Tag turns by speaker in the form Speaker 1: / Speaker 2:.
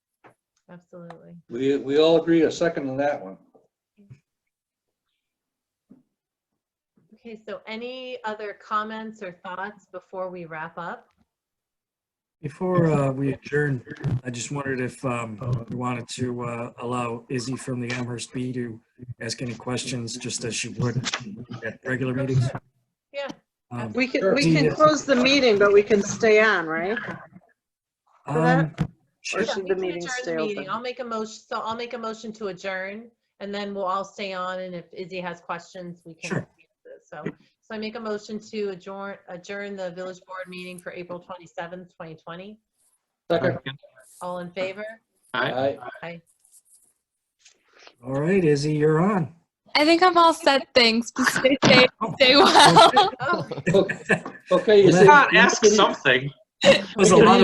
Speaker 1: absolutely.
Speaker 2: We, we all agree a second on that one.
Speaker 1: Okay, so any other comments or thoughts before we wrap up?
Speaker 3: Before uh, we adjourn, I just wondered if um, we wanted to uh, allow Izzy from the Amherst Bee to ask any questions, just as she would at regular meetings.
Speaker 1: Yeah.
Speaker 3: Um,
Speaker 4: We
Speaker 2: Sure.
Speaker 4: can, we can close the meeting, but we can stay on, right?
Speaker 3: um,
Speaker 4: Or
Speaker 3: sure.
Speaker 1: Yeah,
Speaker 4: should
Speaker 1: we
Speaker 4: the
Speaker 1: can
Speaker 4: meeting
Speaker 1: adjourn
Speaker 4: stay
Speaker 1: the meeting.
Speaker 4: open?
Speaker 1: I'll make a motion, so I'll make a motion to adjourn, and then we'll all stay on, and if Izzy has questions, we can.
Speaker 3: Sure.
Speaker 1: answer. So, so I make a motion to adjourn, adjourn the village board meeting for April 27th, 2020.
Speaker 2: Second.
Speaker 1: All in favor?
Speaker 2: Aye.
Speaker 3: All right, Izzy, you're on.
Speaker 5: I think I'm all set. Thanks. Just stay safe, stay well.
Speaker 1: Oh.
Speaker 2: Okay, you
Speaker 3: Well,
Speaker 2: see.
Speaker 6: Ask something.
Speaker 3: It was a lot